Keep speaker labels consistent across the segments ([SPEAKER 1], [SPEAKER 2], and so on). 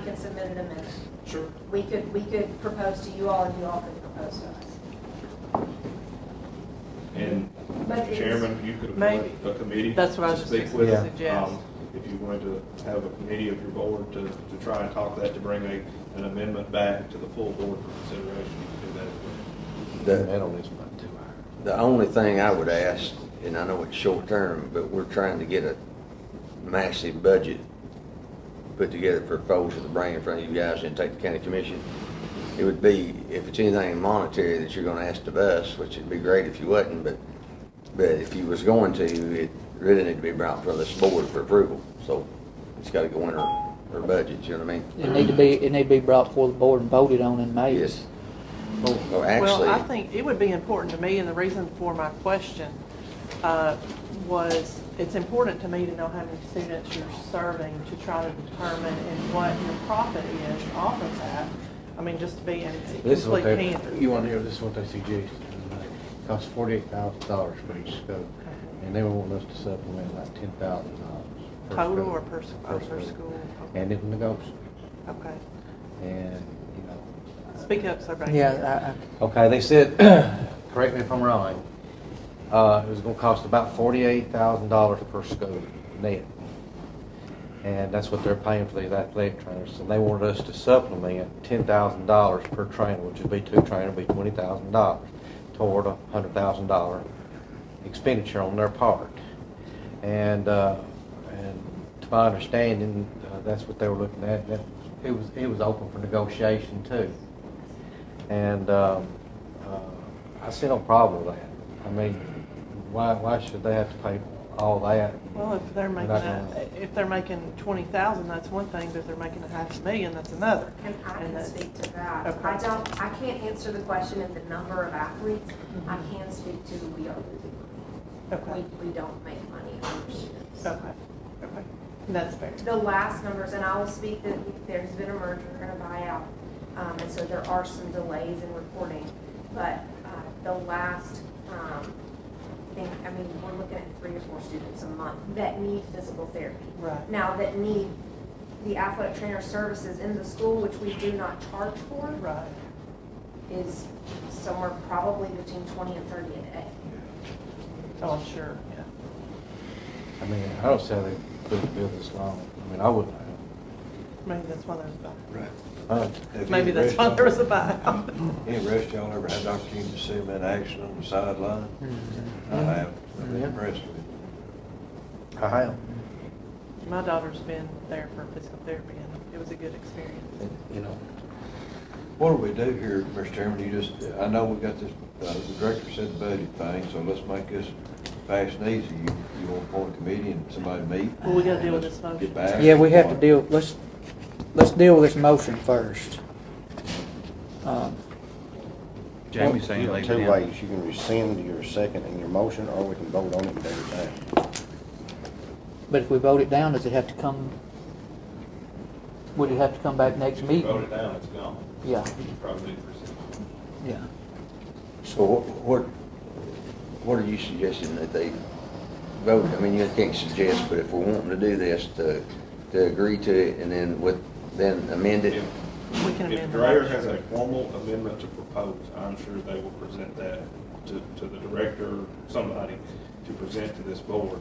[SPEAKER 1] can submit an amendment.
[SPEAKER 2] Sure.
[SPEAKER 1] We could, we could propose to you all and you all could propose to us.
[SPEAKER 2] And,
[SPEAKER 1] But
[SPEAKER 2] Mr.
[SPEAKER 1] it's-
[SPEAKER 2] Chairman, you could appoint
[SPEAKER 3] Maybe.
[SPEAKER 2] a committee.
[SPEAKER 3] That's what I was
[SPEAKER 2] to
[SPEAKER 3] just
[SPEAKER 2] speak
[SPEAKER 3] fixing
[SPEAKER 2] with,
[SPEAKER 3] to suggest.
[SPEAKER 2] um, If you wanted to have a committee of your board to, to try and talk that, to bring a, an amendment back to the full board for consideration, you could do that. as well.
[SPEAKER 4] The,
[SPEAKER 5] only is about two hours.
[SPEAKER 4] the only thing I would ask, and I know it's short term, but we're trying to get a massive budget put together for proposal to bring in front of you guys and take the county commission. It would be, if it's anything monetary that you're gonna ask of us, which would be great if you wasn't, but, but if you was going to, it really need to be brought for this board for approval. So it's gotta go in our, our budget, you know what I mean?
[SPEAKER 6] It need to be, it need to be brought before the board and voted on in May.
[SPEAKER 4] Yes. Well,
[SPEAKER 3] Well, I
[SPEAKER 4] actually,
[SPEAKER 3] think it would be important to me, and the reason for my question uh, was, it's important to me to know how many students you're serving to try to determine and what your profit is off of that. I mean, just to be in
[SPEAKER 5] This is
[SPEAKER 3] complete
[SPEAKER 5] what they,
[SPEAKER 3] candor.
[SPEAKER 5] you want to hear, this is what they suggest. Costs forty-eight thousand dollars for each scope, and they were wanting us to supplement like ten thousand dollars.
[SPEAKER 3] Total or per s- oh, per school?
[SPEAKER 5] And it was negotiable,
[SPEAKER 3] Okay.
[SPEAKER 5] and, you know,
[SPEAKER 3] Speak up, sir. Baker.
[SPEAKER 6] Yeah,
[SPEAKER 5] Okay, they said, correct me if I'm wrong, uh, it was gonna cost about forty-eight thousand dollars per school net. And that's what they're paying for these athletic trainers, and they wanted us to supplement ten thousand dollars per trainer, which would be two trainers, would be twenty thousand dollars toward a hundred thousand dollar expenditure on their part. And, uh, and to my understanding, uh, that's what they were looking at, that, it was, it was open for negotiation too. And um, uh, I see no problem with that. I mean, why, why should they have to pay all that?
[SPEAKER 3] Well, if they're making,
[SPEAKER 5] Not
[SPEAKER 3] a-
[SPEAKER 5] gonna-
[SPEAKER 3] if they're making twenty thousand, that's one thing, but if they're making a half a million, that's another.
[SPEAKER 1] And I can
[SPEAKER 3] that-
[SPEAKER 1] speak to that.
[SPEAKER 3] Okay.
[SPEAKER 1] I don't, I can't answer the question of the number of athletes. I can speak to we are losing money.
[SPEAKER 3] Okay,
[SPEAKER 1] We, we don't make money on our students.
[SPEAKER 3] okay, okay. That's fair.
[SPEAKER 1] The last numbers, and I will speak that there's been a merger and a buyout, um, and so there are some delays in reporting. But, uh, the last, um, thing, I mean, we're looking at three or four students a month that need physical therapy.
[SPEAKER 3] Right.
[SPEAKER 1] Now, that need the athletic trainer services in the school, which we do not charge for,
[SPEAKER 3] Right.
[SPEAKER 1] is somewhere probably between twenty and thirty a day.
[SPEAKER 3] Oh, I'm sure, yeah.
[SPEAKER 5] I mean, I don't see how they could have built this long. I mean, I wouldn't have.
[SPEAKER 3] Maybe that's why there's a
[SPEAKER 7] Right.
[SPEAKER 5] Uh,
[SPEAKER 7] Have
[SPEAKER 3] buyout. Maybe
[SPEAKER 7] any
[SPEAKER 3] that's why
[SPEAKER 7] rest-
[SPEAKER 3] there was a buyout.
[SPEAKER 7] Any rest y'all ever had the opportunity to see them in action on the sideline?
[SPEAKER 3] Mm-hmm.
[SPEAKER 7] I have. I've been
[SPEAKER 5] Yeah.
[SPEAKER 7] impressed with it.
[SPEAKER 5] I have.
[SPEAKER 3] My daughter's been there for physical therapy and it was a good experience.
[SPEAKER 5] You know,
[SPEAKER 7] What do we do here, Mr. Chairman? You just, I know we got this, uh, the director said budget thing, so let's make this fast and easy. You, you want to appoint a committee and somebody meet?
[SPEAKER 3] Well, we gotta deal with this
[SPEAKER 7] Let's
[SPEAKER 3] motion.
[SPEAKER 7] Get back.
[SPEAKER 6] Yeah, we have to deal, let's, let's deal with this motion first. Um,
[SPEAKER 8] Jamie's saying
[SPEAKER 9] You know,
[SPEAKER 8] leave it
[SPEAKER 9] Two
[SPEAKER 8] in.
[SPEAKER 9] ways, you can rescind your second and your motion, or we can vote on it and do it now.
[SPEAKER 6] But if we vote it down, does it have to come, would it have to come back next
[SPEAKER 2] If you vote it
[SPEAKER 6] meeting?
[SPEAKER 2] down, it's gone.
[SPEAKER 6] Yeah,
[SPEAKER 2] You could Probably do percent.
[SPEAKER 6] yeah.
[SPEAKER 4] so wh- what, what are you suggesting that they vote? I mean, you can't suggest, but if we're wanting to do this, to, to agree to it and then with, then amend it?
[SPEAKER 2] If-
[SPEAKER 3] We can
[SPEAKER 2] If
[SPEAKER 3] amend the
[SPEAKER 2] Dreyer has
[SPEAKER 3] motion.
[SPEAKER 2] a formal amendment to propose, I'm sure they will present that to, to the director, somebody, to present to this board.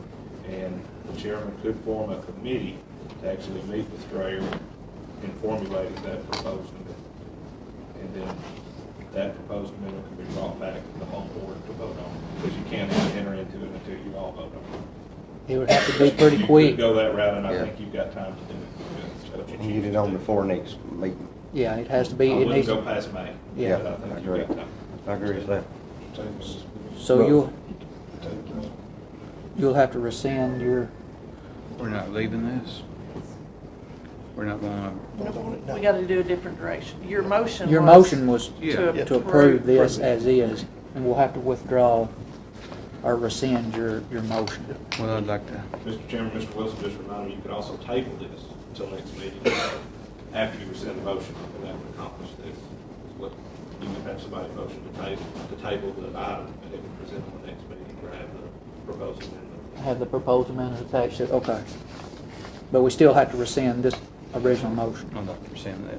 [SPEAKER 2] And the chairman could form a committee to actually meet with Dreyer and formulate that proposed amendment. And then that proposed amendment can be brought back to the whole board to vote on, because you can't enter into it until you all vote on it.
[SPEAKER 6] It would have to be pretty
[SPEAKER 2] You could
[SPEAKER 6] quick.
[SPEAKER 2] Go that route, and I
[SPEAKER 4] Yeah.
[SPEAKER 2] think you've got time to do it.
[SPEAKER 9] You can get it on before next meeting.
[SPEAKER 6] Yeah, it has to be,
[SPEAKER 2] I
[SPEAKER 6] it
[SPEAKER 2] wouldn't
[SPEAKER 6] needs,
[SPEAKER 2] go past May.
[SPEAKER 6] Yeah,
[SPEAKER 2] but I think
[SPEAKER 9] I
[SPEAKER 2] you've got
[SPEAKER 9] agree.
[SPEAKER 2] time.
[SPEAKER 9] I agree with that.
[SPEAKER 6] so you'll, you'll have to rescind your,
[SPEAKER 8] We're not leaving this. We're not gonna,
[SPEAKER 3] We gotta do a different direction. Your motion
[SPEAKER 6] your
[SPEAKER 3] was
[SPEAKER 6] motion was
[SPEAKER 8] Yeah.
[SPEAKER 3] to
[SPEAKER 6] to approve
[SPEAKER 3] approve.
[SPEAKER 6] this as is, and we'll have to withdraw or rescind your, your motion.
[SPEAKER 8] well, I'd like to,
[SPEAKER 2] Mr. Chairman, Mr. Wilson just reminded me, you could also table this until next meeting, after you rescind the motion, and that would accomplish this. It's what- You would have somebody motion to table, to table the item, and it would present on the next meeting, or have the proposed amendment.
[SPEAKER 6] Have the proposed amendment attached to, okay. But we still have to rescind this
[SPEAKER 10] original motion.
[SPEAKER 6] I'm not saying that.